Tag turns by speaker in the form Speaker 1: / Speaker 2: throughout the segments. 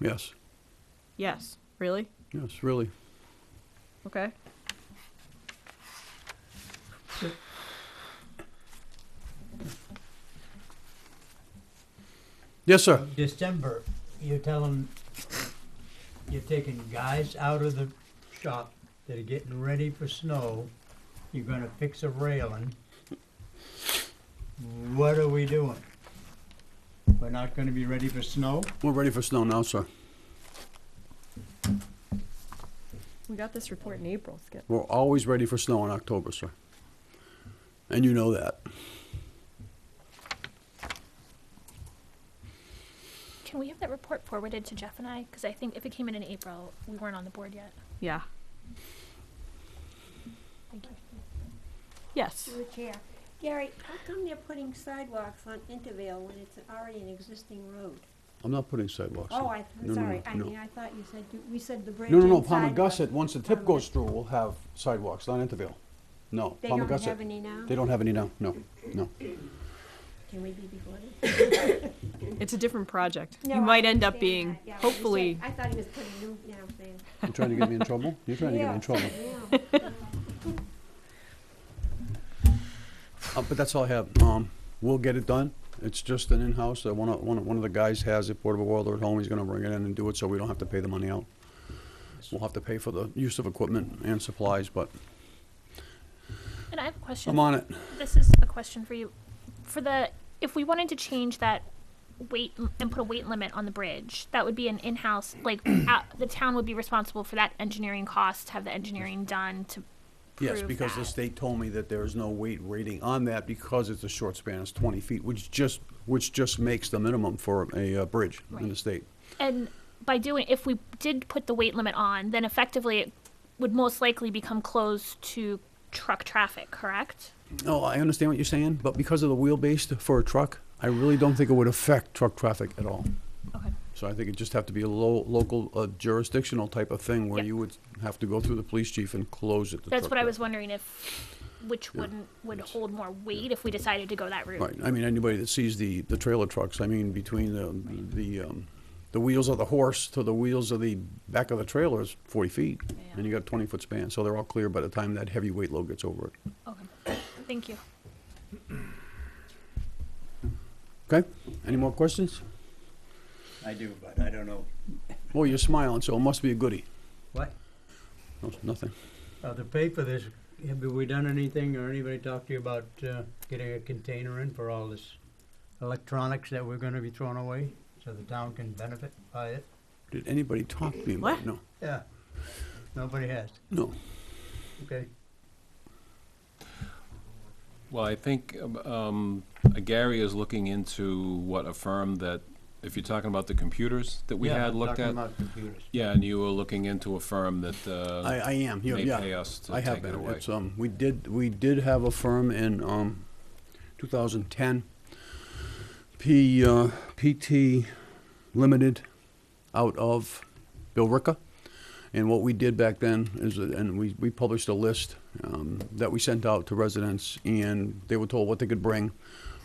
Speaker 1: Yes,
Speaker 2: Yes. Really?
Speaker 1: yes, really.
Speaker 2: Okay.
Speaker 1: Yes, sir.
Speaker 3: December, you're telling, you're taking guys out of the shop that are getting ready for snow. You're gonna fix a railing. What are we doing? We're not gonna be ready for snow?
Speaker 1: We're ready for snow now, sir.
Speaker 2: We got this report in April, Skip.
Speaker 1: We're always ready for snow in October, sir. And you know that.
Speaker 4: Can we have that report forwarded to Jeff and I? Because I think if it came in in April, we weren't on the board yet.
Speaker 2: Yeah.
Speaker 4: Thank you.
Speaker 2: Yes.
Speaker 5: Through the chair. Gary, how come they're putting sidewalks on Intervale when it's already an existing road?
Speaker 1: I'm not putting sidewalks. in.
Speaker 5: Oh, I,
Speaker 1: No, no,
Speaker 5: am sorry,
Speaker 1: no,
Speaker 5: I
Speaker 1: no.
Speaker 5: mean, I thought you said, you- we said the bridge
Speaker 1: No,
Speaker 5: and
Speaker 1: no, no,
Speaker 5: sidewalks.
Speaker 1: Palmagussit, once the tip
Speaker 5: Um,
Speaker 1: goes through, we'll have sidewalks, not Intervale. No,
Speaker 5: They don't have
Speaker 1: Palmagussit.
Speaker 5: any now?
Speaker 1: They don't have any now, no, no.
Speaker 5: Can we be before this?
Speaker 2: It's a different project.
Speaker 5: No,
Speaker 2: you
Speaker 5: I
Speaker 2: might end up
Speaker 5: understand
Speaker 2: being,
Speaker 5: that, yeah, but you said-
Speaker 2: hopefully.
Speaker 5: I thought he was putting new down things.
Speaker 1: You trying to get me in trouble? You're trying to get me in trouble.
Speaker 5: Yeah.
Speaker 1: Uh, but that's all I have. Um, we'll get it done. It's just an in-house. Uh, one, of, one, of, one of the guys has a portable welder at home. He's going to bring it in and do it, so we don't have to pay the money out. We'll have to pay for the use of equipment and supplies, but
Speaker 4: And I have a question.
Speaker 1: I'm on it.
Speaker 4: This is a question for you. For the, if we wanted to change that weight l- and put a weight limit on the bridge, that would be an in-house, like, out, the town would be responsible for that engineering cost, to have the engineering done to prove
Speaker 1: Yes, because the
Speaker 4: that.
Speaker 1: state told me that there is no weight rating on that because it's a short span, it's 20 feet, which just, which just makes the minimum for a uh, bridge in the
Speaker 4: Right.
Speaker 1: state.
Speaker 4: And by doing, if we did put the weight limit on, then effectively it would most likely become closed to truck traffic, correct?
Speaker 1: No, Oh, I understand what you're saying, but because of the wheelbase for a truck, I really don't think it would affect truck traffic at all.
Speaker 4: Okay.
Speaker 1: So I think it'd just have to be a lo- local uh, jurisdictional type of thing where
Speaker 4: Yeah.
Speaker 1: you would have to go through the police chief and close it. to
Speaker 4: That's
Speaker 1: truck
Speaker 4: what I was
Speaker 1: traffic.
Speaker 4: wondering if, which
Speaker 1: Yeah.
Speaker 4: wouldn't, would
Speaker 1: Yes.
Speaker 4: hold more weight if we decided to go that route.
Speaker 1: Right, I mean, anybody that sees the, the trailer trucks, I mean, between the, the, um, the wheels of the horse to the wheels of the back of the trailer is forty feet. And you got twenty-foot span, so they're all clear by the time that heavy weight load gets over it.
Speaker 4: Okay, thank you.
Speaker 1: Okay, any more questions?
Speaker 3: I do, but I don't know.
Speaker 1: Oh, you're smiling, so it must be a goodie.
Speaker 3: What?
Speaker 1: No, Nothing.
Speaker 3: Uh, the pay for this, have we done anything or anybody talked to you about, uh, getting a container in for all this electronics that we're gonna be throwing away? So the town can benefit by it?
Speaker 1: Did anybody talk to you? about it?
Speaker 2: What?
Speaker 1: No,
Speaker 3: Yeah, nobody has,
Speaker 1: no.
Speaker 3: okay.
Speaker 6: Well, I think um, Gary is looking into what a firm that, if you're talking about the computers that we
Speaker 3: Yeah,
Speaker 6: had looked
Speaker 3: Talking
Speaker 6: at.
Speaker 3: about computers.
Speaker 6: Yeah, and you were looking into a firm that
Speaker 1: I,
Speaker 6: uh,
Speaker 1: I am, yeah,
Speaker 6: may
Speaker 1: yeah.
Speaker 6: pay us to
Speaker 1: I have
Speaker 6: take
Speaker 1: been.
Speaker 6: it away.
Speaker 1: It's, um, we did, we did have a firm in, um, 2010, P, uh, PT Limited out of Billerica. And what we did back then is, that- and we, we published a list, um, that we sent out to residents and they were told what they could bring.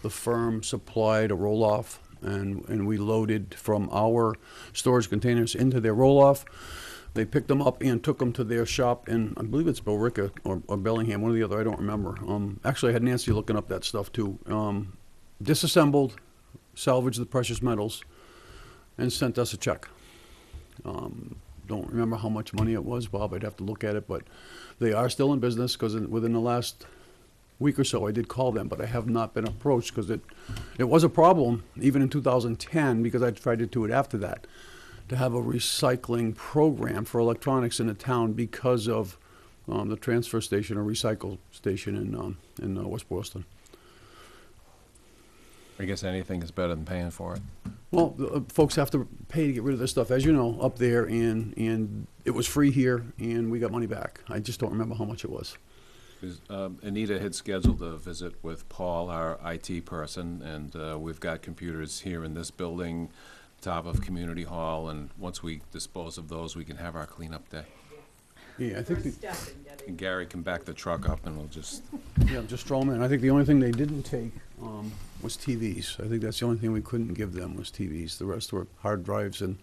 Speaker 1: The firm supplied a roll-off and, and we loaded from our storage containers into their roll-off. They picked them up and took them to their shop in, I believe it's Billerica or, or Bellingham, one or the other, I don't remember. Um, actually, I had Nancy looking up that stuff too. Um, disassembled, salvaged the precious metals, and sent us a check. Um, don't remember how much money it was, Bob. I'd have to look at it, but they are still in business because within the last week or so, I did call them, but I have not been approached because it, it was a problem even in 2010 because I tried to do it after that to have a recycling program for electronics in the town because of um, the transfer station or recycle station in um, in uh, West Boylston.
Speaker 6: I guess anything is better than paying for it.
Speaker 1: Well, the, uh, folks have to pay to get rid of this stuff, as you know, up there, and and it was free here, and we got money back. I just don't remember how much it was.
Speaker 6: 'Cause, um, Anita had scheduled a visit with Paul, our IT person, and uh, we've got computers here in this building, top of Community Hall, and once we dispose of those, we can have our cleanup day.
Speaker 1: Yeah, I think the,
Speaker 6: And Gary can back the truck up and we'll just
Speaker 1: yeah, just throw 'em in. I think the only thing they didn't take um, was TVs. I think that's the only thing we couldn't give them was TVs. The rest were hard drives and